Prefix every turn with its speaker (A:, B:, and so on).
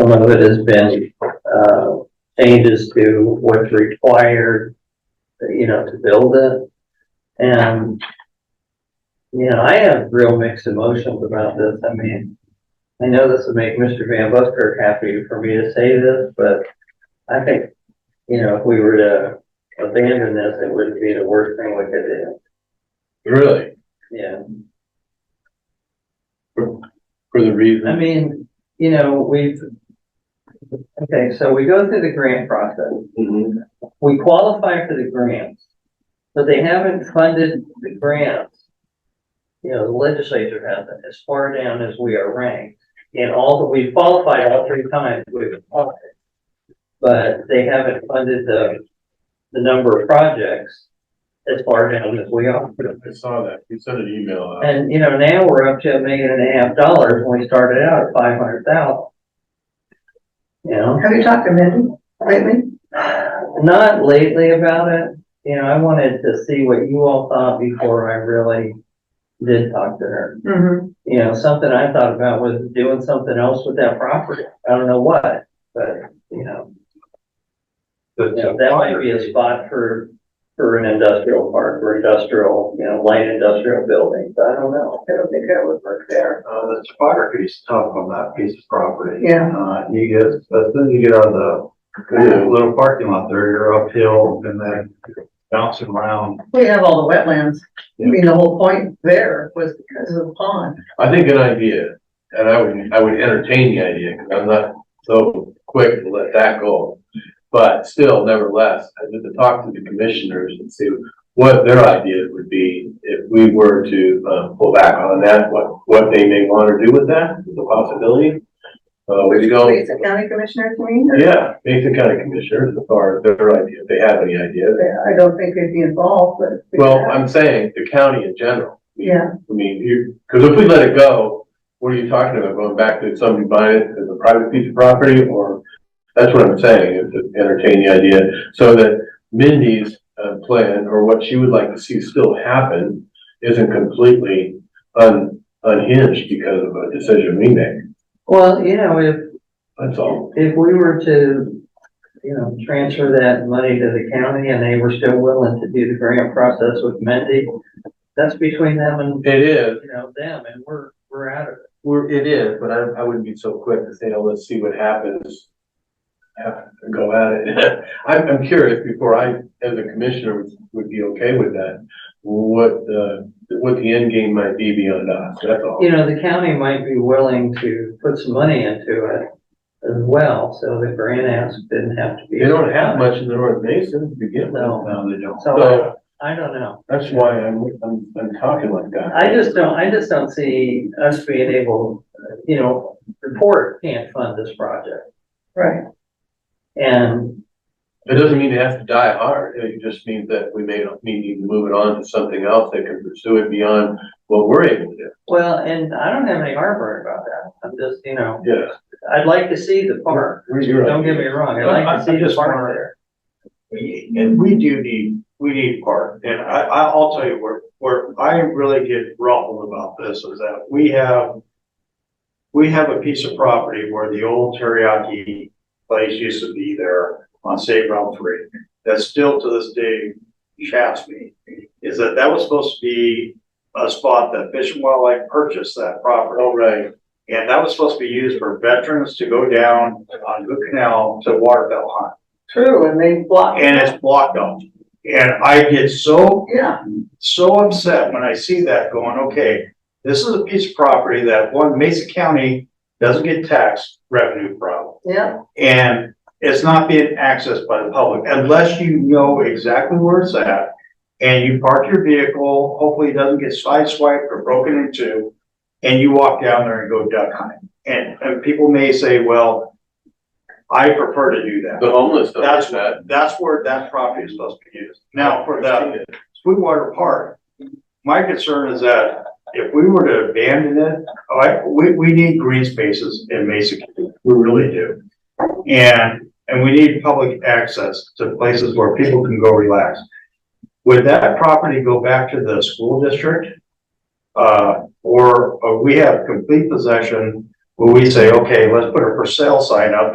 A: Some of it has been, uh, changes to what's required, you know, to build it. And, you know, I have real mixed emotions about this. I mean, I know this would make Mr. Van Busker happy for me to say this, but I think, you know, if we were to abandon this, it wouldn't be the worst thing we could do.
B: Really?
A: Yeah.
B: For the
A: I
B: reason?
A: mean, you know, we've, okay, so we go through the grant process. Mm-hmm. We qualify for the grants, but they haven't funded the grants. You know, the legislature hasn't, as far down as we are ranked. And all that we've qualified all three times, we've qualified. But they haven't funded the, the number of projects as far down as we are.
B: I saw that. You sent an email out.
A: And, you know, now we're up to a million and a half dollars when we started out at five hundred thousand. You know,
C: Have you talked to Mindy lately?
A: not lately about it, you know, I wanted to see what you all thought before I really did talk to her.
C: Mm-hmm.
A: You know, something I thought about was doing something else with that property. I don't know what, but, you know, you know, that might be a spot for, for an industrial park or industrial, you know, light industrial buildings. I don't know.
C: I don't think that would work there.
D: Uh, the topography is tough on that piece of property.
C: Yeah.
D: Uh, you get, as soon as you get out of the little parking lot there, you're uphill and then bouncing around.
C: We have all the wetlands. I mean, the whole point there was because of the pond.
B: I think an idea, and I would, I would entertain the idea, because I'm not so quick to let that go. But still, nevertheless, I need to talk to the commissioners and see what their ideas would be if we were to, uh, pull back on that, what, what they may want to do with that, is a possibility. Uh, we go.
C: Lisa County Commissioners, you mean?
B: Yeah, Mason County Commissioners, as far as their idea, if they have any ideas.
C: I don't think they'd be involved, but.
B: Well, I'm saying the county in general.
C: Yeah.
B: I mean, you, because if we let it go, what are you talking about? Going back to somebody buying it as a private piece of property or? That's what I'm saying, is to entertain the idea so that Mindy's uh, plan or what she would like to see still happen isn't completely un, unhinged because of a decision we make.
A: Well, you know, if,
B: That's all.
A: If we were to, you know, transfer that money to the county and they were still willing to do the grant process with Mendy, that's between them and,
B: It is,
A: you know, them and we're, we're out of it.
B: We're, it is, but I, I wouldn't be so quick to say, oh, let's see what happens. Have to go at it. I'm, I'm curious before I, as a commissioner, would- would be okay with that. What, uh, what the end game might be beyond us, that's all.
A: You know, the county might be willing to put some money into it as well, so the grant ask didn't have to be.
B: They don't have much in the North Mason to begin with.
A: No,
D: No, they don't.
A: so
B: So
A: I don't know.
B: that's why I'm, I'm, I'm talking like that.
A: I just don't, I just don't see us being able, you know, the port can't fund this project.
C: Right.
A: And
B: It doesn't mean it has to die hard, it just means that we may not need to move it on to something else that can pursue it beyond what we're able to do.
A: Well, and I don't have any heartburn about that. I'm just, you know,
B: Yeah.
A: I'd like to see the park.
B: Where's your
A: Don't
B: idea?
A: get me wrong, I'd
D: No,
A: like
D: I-
A: to
D: I
A: see the
D: just
A: park
D: wanted-
A: there.
D: And we do need, we need park, and I, I, I'll tell you where, where I really get ruffled about this is that we have. We have a piece of property where the old teriyaki place used to be there on State Route Three, that still to this day shafts me. Is that that was supposed to be a spot that Fish and Wildlife purchased that property.
B: Oh, right.
D: And that was supposed to be used for veterans to go down on Good Canal to waterfowl hunt
C: True, and they blocked.
D: and it's blocked off. And I get so,
C: Yeah,
D: so upset when I see that going, okay, this is a piece of property that one Mesa County doesn't get tax revenue from.
C: yeah.
D: And it's not being accessed by the public unless you know exactly where it's at. And you park your vehicle, hopefully it doesn't get sideswiped or broken into. And you walk down there and go duck hunting. And, and people may say, well, I prefer to do that.
B: The homeless don't
D: That's,
B: do that.
D: that's where that property is supposed to be used. Now, for the Sweetwater Park, my concern is that if we were to abandon it, I, we, we need green spaces in Mesa County, we really do. And, and we need public access to places where people can go relax. Would that property go back to the school district? Uh, or, or we have complete possession where we say, okay, let's put a for sale sign up